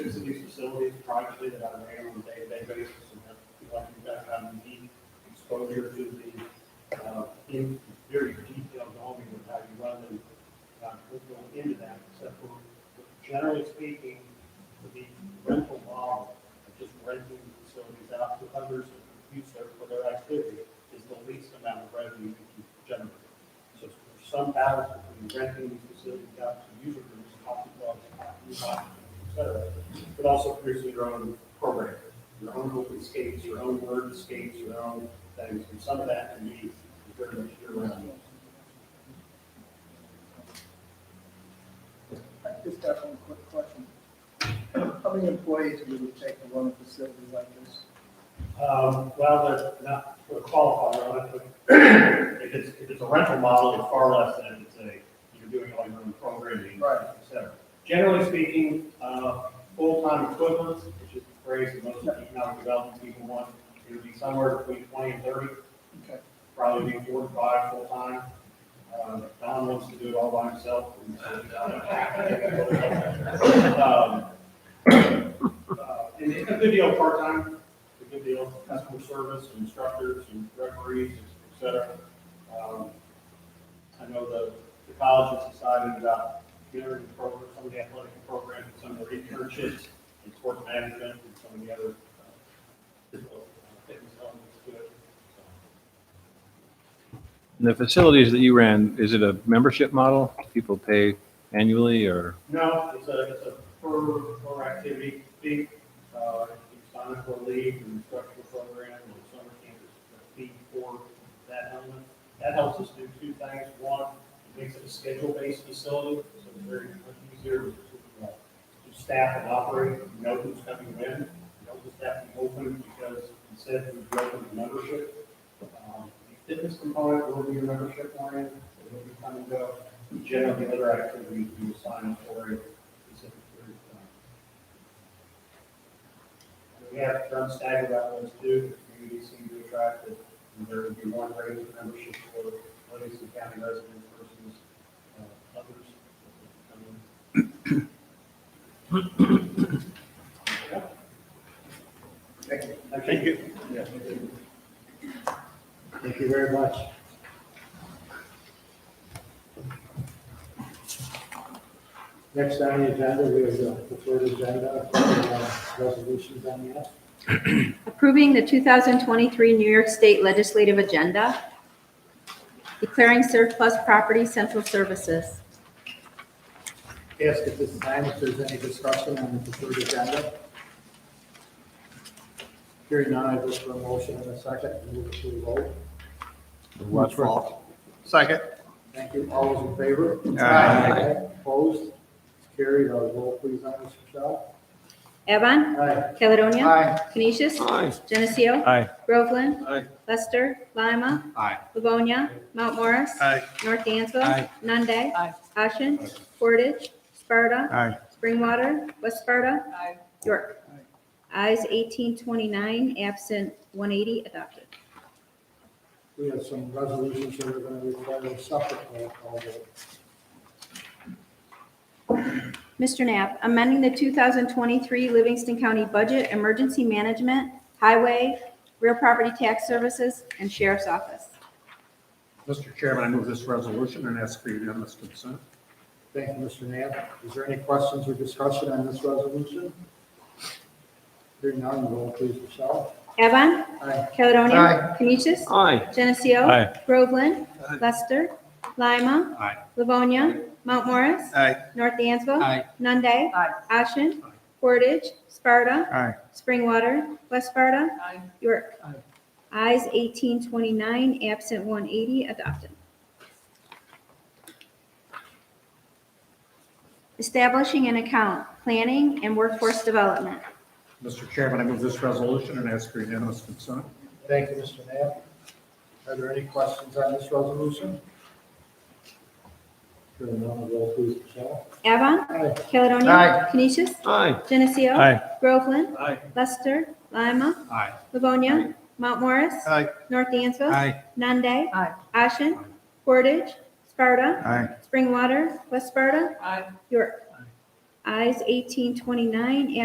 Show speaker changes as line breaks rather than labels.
use facilities privately that I ran on a day-to-day basis, and I feel like we've got kind of unique exposure to the, uh, in very detailed knowledge of how you run them. Uh, we'll go into that, except for, generally speaking, the rental model, of just renting facilities out to others in use there for their activity, is the least amount of revenue you can generate. So there's some balance between renting these facilities out to user groups, coffee clubs, new hospitals, et cetera, but also producing your own program, your own open skates, your own word skates, your own things, and some of that can be very much year-round.
I just got one quick question. How many employees would it take to run a facility like this?
Um, well, that's not what qualifies, right? But if it's, if it's a rental model, it's far less than if it's a, you're doing all your own programming.
Right.
Et cetera. Generally speaking, uh, full-time equivalents, which is the phrase that most economic development people want, it would be somewhere between twenty and thirty,
Okay,
probably be four to five full-time. Uh, Don wants to do it all by himself. Um, and so- Um, uh, And it's a good deal part-time, it's a good deal for customer service and instructors and referees, et cetera. Um, I know the, the college has decided about getting program, some of the athletic programs, and some of their internships in sports management and some of the other uh, physical fitness elements to it. So,
And the facilities that you ran, is it a membership model? People pay annually or,
No, it's a, it's a per, per activity fee. Uh, you sign up for a league and instructional program and summer camp is a fee for that element. That helps us do two things. One, it makes it a schedule-based facility, so it's very much easier to, uh, to staff and operate. You know who's coming in, you know who's staff is open because instead we open the membership. Um, the Fitness component will be your membership oriented, so it'll be come and go generally other activities we assign for a specific period of time. And We have done staggered outlets too, the community seem to attract it, and there would be one rate of membership for Livingston County residents versus uh, others. that come in.
thank you.
Thank you. Thank you very much.
Next on the agenda, we have the preferred agenda, uh, resolutions on the app.
Approving the 2023 New York State Legislative Agenda. Declaring surplus property central services.
Ask at this time if there's any discussion on the preferred agenda. Hearing none, I look for a motion and a second, and move to a vote.
Watch for
Second.
Thank you, all those in favor?
Aye.
Opposed? Carried, our roll please on this, Michelle.
Evan.
Aye.
Caledonia.
Aye.
Canisius. Geneseo.
Aye.
Groveland.
Aye.
Lester. Lima.
Aye.
Livonia. Mount Morris.
Aye.
North Dansville.
Aye.
Nunde. Ashen. Portage. Sparta. Springwater. West Sparta. York. Eyes 1829, absent 180, adopted.
We have some resolutions that are going to require a separate roll call vote.
Mr. Knapp, amending the 2023 Livingston County Budget, Emergency Management, Highway, Real Property Tax Services, and Sheriff's Office.
Mr. Chairman, I move this resolution and ask for unanimous consent.
Thank you, Mr. Knapp. Is there any questions or discussion on this resolution? Hearing none, roll please, Michelle.
Avon,
Aye.
Caledonia.
Aye.
Canisius.
Aye.
Geneseo.
Aye.
Groveland. Lester. Lima.
Aye.
Livonia. Mount Morris.
Aye.
North Dansville.
Aye.
Nunde. Ashen. Portage. Sparta.
Aye.
Springwater. West Sparta. York.
Aye.
Eyes 1829, absent 180, adopted. Establishing an account, planning and workforce development.
Mr. Chairman, I move this resolution and ask for unanimous consent.
Thank you, Mr. Knapp. Are there any questions on this resolution? Hearing none, roll please, Michelle.
Avon.
Aye.
Caledonia.
Aye.
Canisius.
Aye.
Geneseo.
Aye.
Groveland.
Aye.
Lester. Lima.
Aye.
Livonia. Mount Morris.
Aye.
North Dansville.
Aye.
Nunde.
Aye.
Ashen. Portage. Sparta.
Aye.
Springwater. West Sparta.
Aye.
York. Eyes 1829,